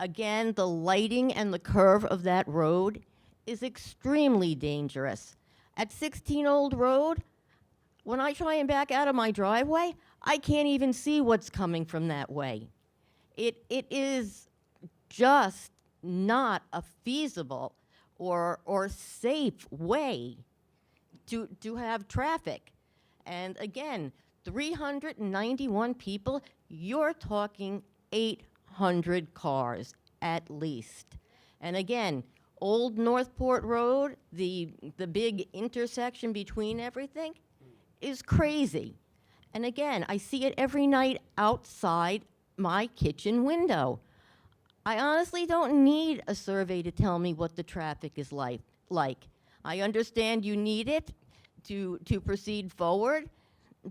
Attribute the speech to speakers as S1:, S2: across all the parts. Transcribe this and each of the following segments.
S1: Again, the lighting and the curve of that road is extremely dangerous. At 16 Old Road, when I try and back out of my driveway, I can't even see what's coming from that way. It, it is just not a feasible or, or safe way to, to have traffic. And again, 391 people, you're talking 800 cars at least. And again, Old Northport Road, the, the big intersection between everything, is crazy. And again, I see it every night outside my kitchen window. I honestly don't need a survey to tell me what the traffic is like. Like, I understand you need it to to proceed forward,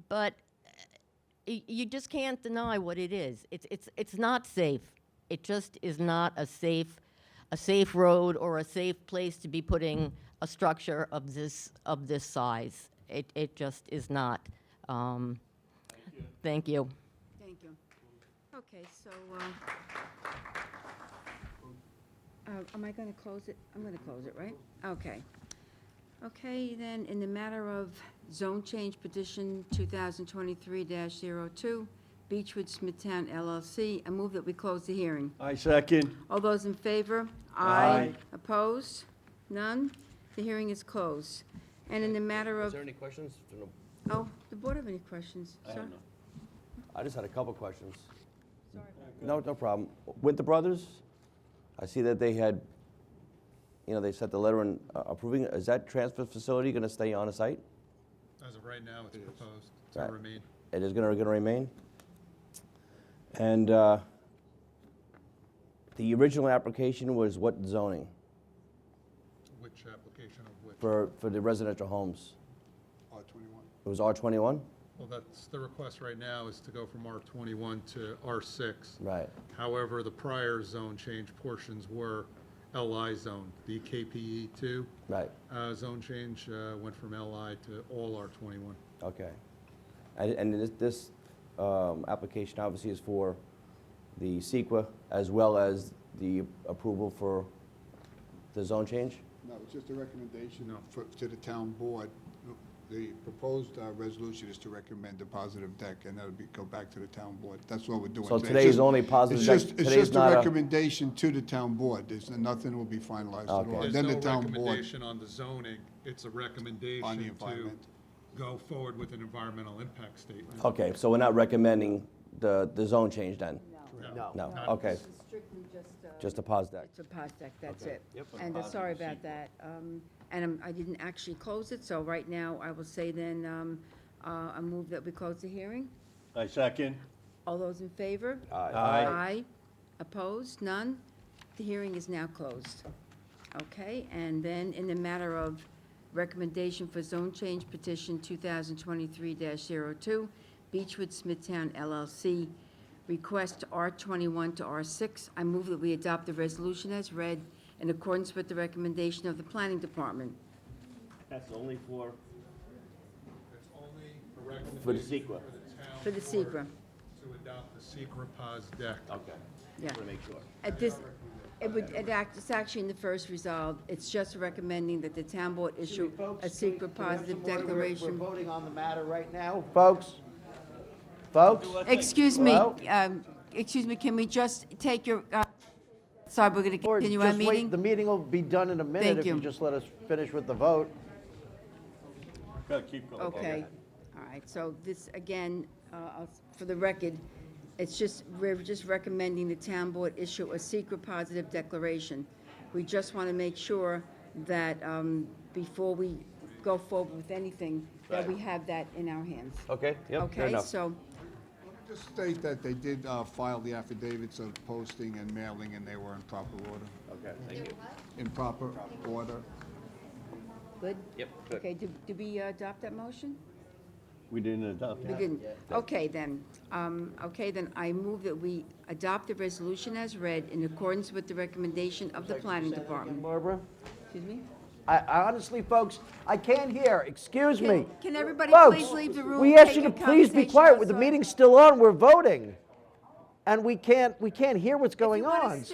S1: but uh, y- you just can't deny what it is. It's it's it's not safe. It just is not a safe a safe road or a safe place to be putting a structure of this of this size. It it just is not. Um, Thank you.
S2: Thank you. Okay, so, uh, uh, am I going to close it? I'm going to close it, right? Okay. Okay, then, in the matter of zone change petition 2023-02, Beechwood Smithtown LLC, I move that we close the hearing.
S3: I second.
S2: All those in favor?
S3: Aye.
S2: Opposed? None? The hearing is closed. And in the matter
S4: Is
S2: of,
S4: there any questions? No.
S2: oh, the board have any questions?
S4: I have
S2: Sir?
S4: none. I just had a couple questions. No, no problem. Winter Brothers, I see that they had, you know, they sent the letter in uh, approving, is that transfer facility going to stay on the site?
S5: As of right now, it's proposed
S4: Right.
S5: to remain.
S4: It is going to remain? And uh, the original application was what zoning
S5: Which application of which?
S4: for, for the residential homes?
S5: R twenty-one.
S4: It was R21?
S5: Well, that's, the request right now is to go from R twenty-one to R six.
S4: Right.
S5: However, the prior zone change portions were LI zone. The KPE two
S4: Right,
S5: uh, zone change uh, went from LI to all R twenty-one.
S4: okay. And, and this, this um, application obviously is for the CEQA as well as the approval for the zone change?
S6: No, it's just a recommendation
S5: No.
S6: for- to the town board. The proposed uh, resolution is to recommend a positive deck, and that'll be, go back to the town board. That's what we're doing.
S4: So
S6: It's
S4: today is
S6: just-
S4: only positive
S6: it's
S4: deck.
S6: just- It's
S4: Today is
S6: just a
S4: not a-
S6: recommendation to the town board. There's, nothing will be finalized at
S4: Okay.
S6: all.
S5: There's
S6: Then
S5: no
S6: the town board.
S5: recommendation on the zoning. It's a recommendation to
S6: environment.
S5: go forward with an environmental impact statement.
S4: Okay, so we're not recommending the, the zone change then?
S5: No.
S4: No, okay,
S2: Strictly just, uh,
S4: just a pause deck.
S2: It's a Posdek, that's
S4: Okay.
S2: it.
S4: Yep.
S2: And I'm sorry about that. Um, And I'm- I didn't actually close it, so right now I will say then, um, uh, I move that we close the hearing.
S3: I second.
S2: All those in favor?
S3: Aye.
S2: Aye. Opposed? None? The hearing is now closed. Okay, and then in the matter of recommendation for zone change petition 2023-02, Beechwood Smithtown LLC, request R21 to R6, I move that we adopt the resolution as read in accordance with the recommendation of the planning department.
S3: That's only for,
S5: It's only a recommendation
S3: For the SECRA.
S5: town
S2: For the
S5: board
S2: SECRA.
S5: To adopt the SECRA POS deck.
S3: okay.
S2: Yeah.
S3: Want to make sure.
S2: At this, it would, it act, it's actually in the first resolve, it's just recommending that the town board issue a secret positive declaration.
S7: We're voting on the matter right now, folks. Folks,
S2: Excuse me,
S7: Hello?
S2: um, excuse me, can we just take your, uh, sorry, we're gonna
S7: or
S2: continue our
S7: just wait, the
S2: meeting?
S7: meeting will be done in a
S2: Thank
S7: minute if
S2: you.
S7: you just let us finish with the vote.
S3: Gotta keep going.
S2: Okay, all right, so this, again, uh, I'll- for the record, it's just, we're just recommending the town board issue a secret positive declaration. We just wanna make sure that, um, before we go forward with anything, that we have that in our hands.
S4: Okay, yep, fair
S2: Okay,
S4: enough.
S2: so,
S6: Just state that they did uh, file the affidavits of posting and mailing, and they were in proper order.
S3: Okay, thank you.
S6: In proper order.
S2: good?
S4: Yep, good.
S2: Okay, did, did we uh, adopt that motion?
S3: We didn't adopt
S2: We didn't. Okay, then, um, okay, then I move that we adopt the resolution as read in accordance with the recommendation of the planning department.
S7: Barbara?
S2: Excuse me?
S7: I I honestly, folks, I can't hear, excuse
S2: Can-
S7: me.
S2: can everybody
S7: Folks,
S2: please leave the room,
S7: We asked
S2: take
S7: you to
S2: your
S7: please be
S2: conversation
S7: quiet, the
S2: outside.
S7: meeting's still on, we're voting. And we can't, we can't hear what's going
S2: you wanna
S7: on, so.